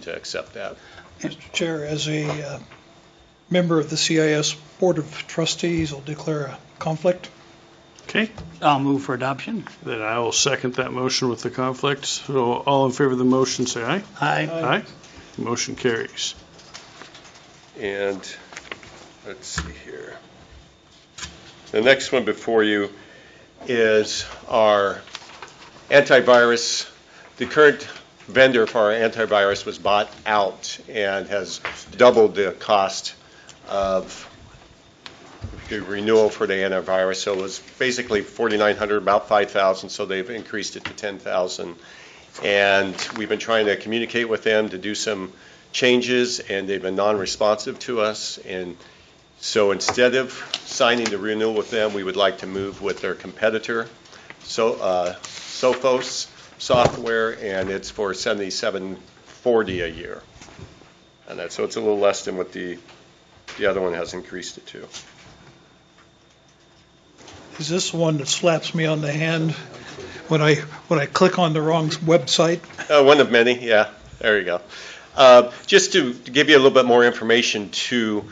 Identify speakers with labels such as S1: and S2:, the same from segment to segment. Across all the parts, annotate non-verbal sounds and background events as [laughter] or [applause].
S1: to accept that.
S2: Mr. Chair, as a uh, member of the CIS Board of Trustees, I'll declare a conflict.
S3: Okay,
S4: I'll move for adoption.
S3: then I will second that motion with the conflict. So all in favor of the motion, say aye.
S4: Aye.
S3: Aye. Motion carries.
S1: And let's see here. The next one before you is our antivirus. The current vendor for our antivirus was bought out and has doubled the cost of the renewal for the antivirus. So it was basically 4,900, about 5,000, so they've increased it to 10,000. And we've been trying to communicate with them to do some changes, and they've been non-responsive to us. And so instead of signing the renewal with them, we would like to move with their competitor, So uh, Sophos Software, and it's for $77.40 a year. And that's, so it's a little less than what the, the other one has increased it to.
S2: Is this the one that slaps me on the hand when I, when I click on the wrong website?
S1: [laughs] Uh, one of many, yeah. There you go. Uh, just to to give you a little bit more information too,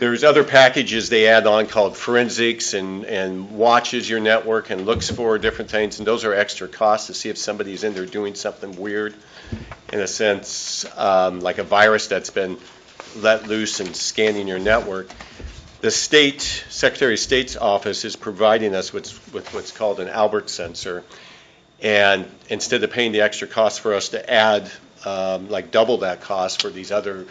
S1: there's other packages they add on called forensics and, and watches your network and looks for different things, and those are extra costs to see if somebody's in there doing something weird, in a sense, um, like a virus that's been let loose and scanning your network. The state, Secretary of State's office is providing us with, with what's called an Albert sensor, and instead of paying the extra cost for us to add, um, like double that cost for these other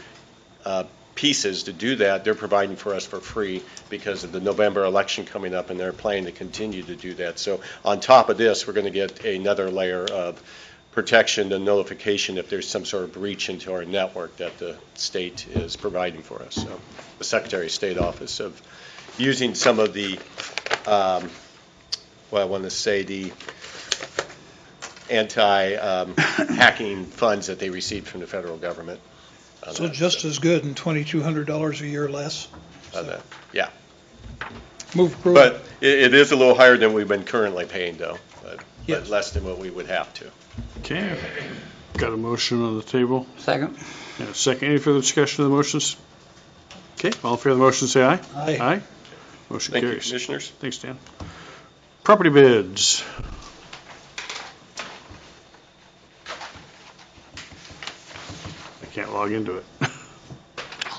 S1: uh, pieces to do that, they're providing for us for free because of the November election coming up, and they're planning to continue to do that. So on top of this, we're going to get another layer of protection and notification if there's some sort of breach into our network that the state is providing for us. So the Secretary of State Office of using some of the, um, well, I want to say the anti-hacking funds that they received from the federal government. on
S2: So
S1: that,
S2: just as good and $2,200 a year less.
S1: on that.
S2: Move approval.
S1: But it, it is a little higher than we've been currently paying, though, but- but
S2: Yes.
S1: less than what we would have to.
S3: Okay, got a motion on the table.
S4: Second.
S3: And a second, any further discussion of the motions? Okay, all in favor of the motion, say aye.
S2: Aye.
S3: Aye. Motion
S1: Thank you,
S3: carries.
S1: commissioners.
S3: Thanks, Dan. Property bids. I can't log into it.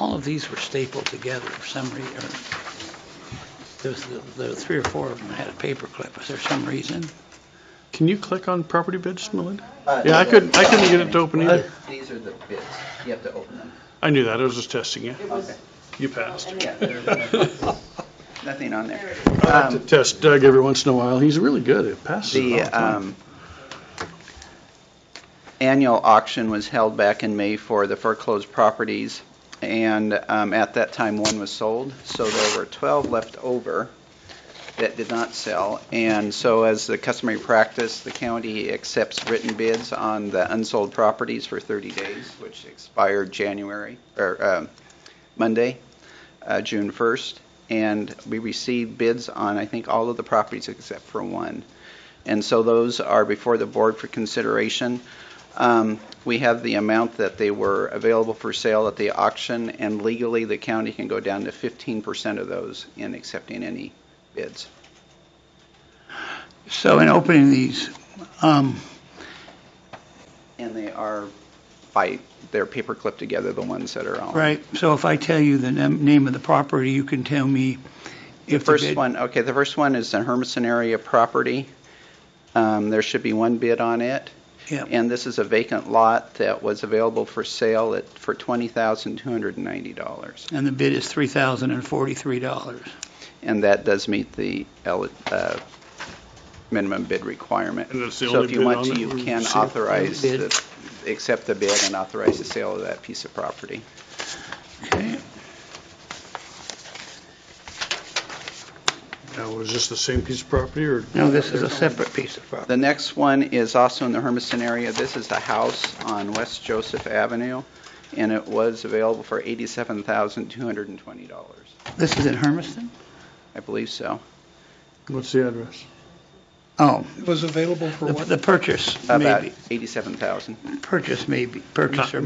S4: All of these were stapled together for some reason. There was, the- the three or four of them had a paperclip. Was there some reason?
S3: Can you click on property bids, Melinda?
S5: Uh,
S3: Yeah, I
S5: these
S3: couldn't, I
S5: are-
S3: couldn't get it to open either.
S5: These are the bids. You have to open them.
S3: I knew that, I was just testing you.
S5: Okay.
S3: You passed.
S5: Yeah, there's nothing on there. Um,
S3: I have to test Doug every once in a while, he's really good, it passes it all
S5: The
S3: the time.
S5: um, annual auction was held back in May for the foreclosed properties, and um, at that time, one was sold, so there were 12 left over that did not sell. And so as the customary practice, the county accepts written bids on the unsold properties for 30 days, which expired January, or um, Monday, uh, June 1st. And we received bids on, I think, all of the properties except for one. And so those are before the board for consideration. Um, We have the amount that they were available for sale at the auction, and legally, the county can go down to 15% of those in accepting any bids.
S4: So in opening these, um,
S5: And they are by, they're paper clipped together, the ones that are on.
S4: right, so if I tell you the nam- name of the property, you can tell me
S5: The
S4: if the
S5: first
S4: bid-
S5: one, okay, the first one is the Hermiston area property. Um, There should be one bid on it.
S4: Yep.
S5: And this is a vacant lot that was available for sale at, for $20,290.
S4: And the bid is $3,043.
S5: and that does meet the el- uh, minimum bid requirement.
S3: And that's the
S5: So
S3: only
S5: if you
S3: bid
S5: want
S3: on
S5: to,
S3: it
S5: you
S3: we've
S5: can
S3: received?
S5: authorize,
S4: Bid.
S5: the- accept the bid and authorize the sale of that piece of property.
S4: Okay,
S3: Now, was this the same piece of property, or?
S4: no, this is a separate piece of property.
S5: The next one is also in the Hermiston area. This is a house on West Joseph Avenue, and it was available for $87,220,
S4: This is in Hermiston?
S5: I believe so.
S3: What's the address?
S4: Uh, Oh,
S2: It was available for
S4: the
S2: what?
S4: the purchase,
S5: about
S4: maybe,
S5: 87,000.
S4: purchase maybe, purchaser